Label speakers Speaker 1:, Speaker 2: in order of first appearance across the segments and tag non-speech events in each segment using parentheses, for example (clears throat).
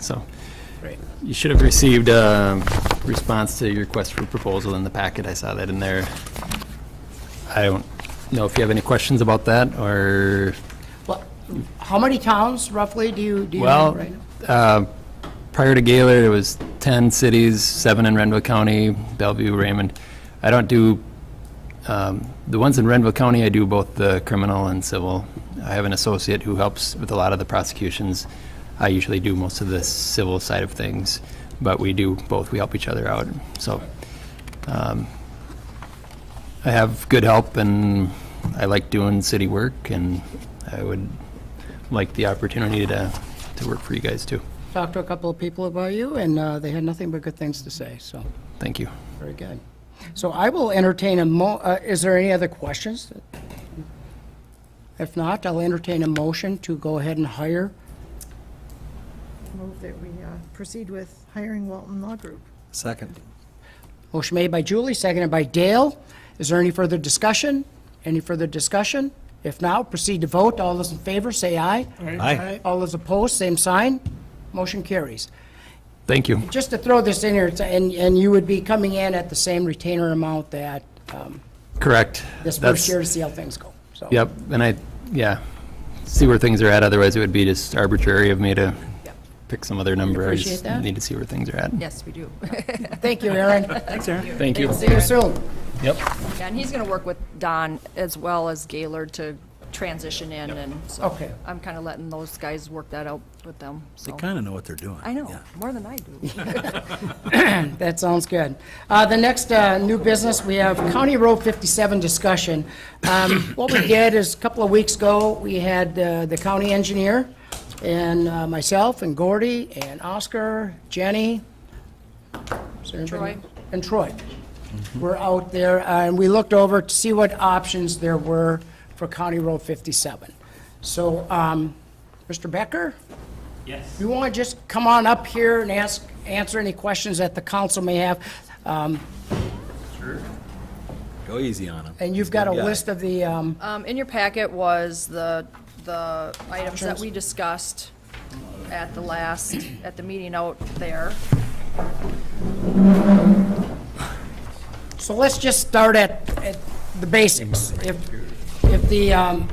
Speaker 1: So
Speaker 2: Great.
Speaker 1: you should have received a response to your request for proposal in the packet. I saw that in there. I don't know if you have any questions about that or,
Speaker 2: Well, How many towns roughly do you, do you know
Speaker 1: well,
Speaker 2: right now?
Speaker 1: uh, prior to Gaylor, there was 10 cities, seven in Renville County, Bellevue, Raymond. I don't do, um, the ones in Renville County, I do both the criminal and civil. I have an associate who helps with a lot of the prosecutions. I usually do most of the civil side of things, but we do both. We help each other out, so. um, I have good help, and I like doing city work, and I would like the opportunity to, to work for you guys, too.
Speaker 2: Talked to a couple of people about you, and uh, they had nothing but good things to say, so,
Speaker 1: Thank you.
Speaker 2: very good. So I will entertain a mo, uh, is there any other questions? If not, I'll entertain a motion to go ahead and hire.
Speaker 3: Move that we uh, proceed with hiring Walton Law Group.
Speaker 4: Second.
Speaker 2: Motion made by Julie, seconded by Dale. Is there any further discussion? Any further discussion? If not, proceed to vote. All those in favor, say aye.
Speaker 4: Aye.
Speaker 2: All those opposed, same sign. Motion carries.
Speaker 1: Thank you.
Speaker 2: Just to throw this in here, it's- and, and you would be coming in at the same retainer amount that um,
Speaker 1: Correct.
Speaker 2: this
Speaker 1: That's-
Speaker 2: first year to see how things go. So,
Speaker 1: Yep, and I, yeah, see where things are at, otherwise it would be just arbitrary of me to
Speaker 2: Yep.
Speaker 1: pick some other number. I
Speaker 2: Appreciate
Speaker 1: just
Speaker 2: that.
Speaker 1: Need to see where things are at.
Speaker 5: Yes, we do. (laughs)
Speaker 2: Thank you, Aaron.
Speaker 1: Thank you.
Speaker 2: See you soon.
Speaker 1: Yep.
Speaker 5: Yeah, And he's going to work with Don as well as Gaylord to transition in, and so.
Speaker 2: Okay.
Speaker 5: I'm kind of letting those guys work that out with them,
Speaker 4: They
Speaker 5: so.
Speaker 4: kind of know what they're doing.
Speaker 5: I know,
Speaker 4: Yeah.
Speaker 5: more than
Speaker 4: (laughs)
Speaker 5: I do.
Speaker 2: That sounds good. Uh, The next uh, new business, we have County Road 57 discussion. Um, What we did is, a couple of weeks ago, we had uh, the county engineer and uh, myself and Gordy and Oscar, Jenny. is there anybody-
Speaker 5: Troy.
Speaker 2: And Troy. We're out there, uh, and we looked over to see what options there were for County Road 57. So, um, Mr. Becker? You want to just come on up here and ask, answer any questions that the council may have? Um,
Speaker 4: Go easy on them.
Speaker 2: And you've got a list of the, um,
Speaker 5: Um, in your packet was the, the items that we discussed at the last, at the meeting out there.
Speaker 2: so let's just start at, at the basics. If, if the um,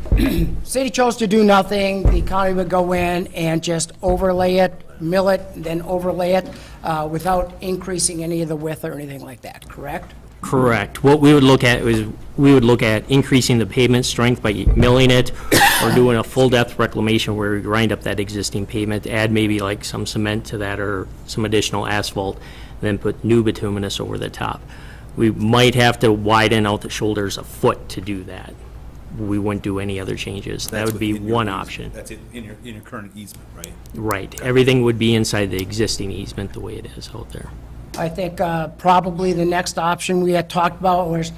Speaker 2: (clears throat) city chose to do nothing, the county would go in and just overlay it, mill it, then overlay it uh, without increasing any of the width or anything like that, correct?
Speaker 6: Correct. What we would look at is, we would look at increasing the pavement strength by milling it or doing a full-depth reclamation where we grind up that existing pavement, add maybe like some cement to that or some additional asphalt, then put new bituminous over the top. We might have to widen out the shoulders a foot to do that. We wouldn't do any other changes. That would be
Speaker 7: within your
Speaker 6: one
Speaker 7: easement.
Speaker 6: option.
Speaker 7: That's it, in your, in your current easement, right?
Speaker 6: Right. Everything would be inside the existing easement the way it is out there.
Speaker 2: I think uh, probably the next option we had talked about was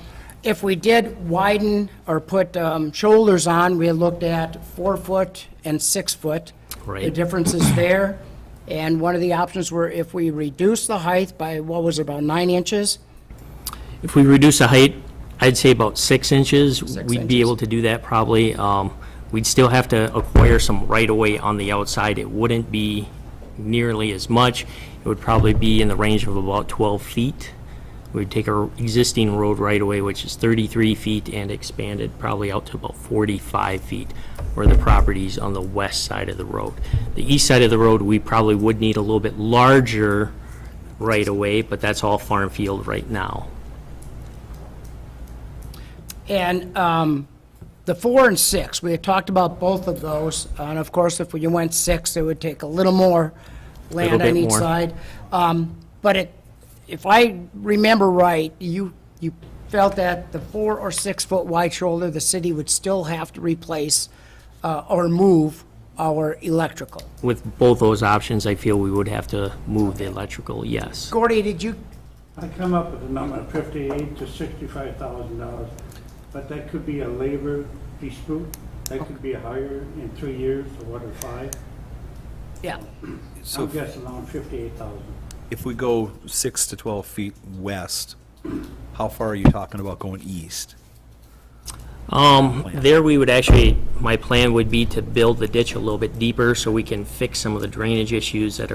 Speaker 2: if we did widen or put um, shoulders on, we had looked at four foot and six foot. The
Speaker 6: Right.
Speaker 2: difference is there. And one of the options were if we reduce the height by, what was it, about nine inches?
Speaker 6: If we reduce the height, I'd say about six inches. We'd
Speaker 2: inches.
Speaker 6: be able to do that probably. Um, We'd still have to acquire some right-of-way on the outside. It wouldn't be nearly as much. It would probably be in the range of about 12 feet. We'd take our existing road right-of-way, which is 33 feet, and expand it probably out to about 45 feet where the property's on the west side of the road. The east side of the road, we probably would need a little bit larger right-of-way, but that's all farm field right now.
Speaker 2: And um, the four and six, we had talked about both of those, and of course, if you went six, it would take a little more land
Speaker 6: Little
Speaker 2: on
Speaker 6: bit
Speaker 2: each
Speaker 6: more.
Speaker 2: side. Um, But it, if I remember right, you, you felt that the four or six-foot wide shoulder, the city would still have to replace uh, or move our electrical.
Speaker 6: With both those options, I feel we would have to move the electrical, yes.
Speaker 2: Gordy, did you,
Speaker 8: I come up with a number of fifty-eight to sixty-five thousand dollars, but that could be a labor dispute, that could be higher in three years or what, or five.
Speaker 2: yeah,
Speaker 7: So
Speaker 8: I'm
Speaker 7: if-
Speaker 8: guessing around fifty-eight thousand.
Speaker 7: if we go six to 12 feet west, how far are you talking about going east?
Speaker 6: Um, there we would actually, my plan would be to build the ditch a little bit deeper so we can fix some of the drainage issues that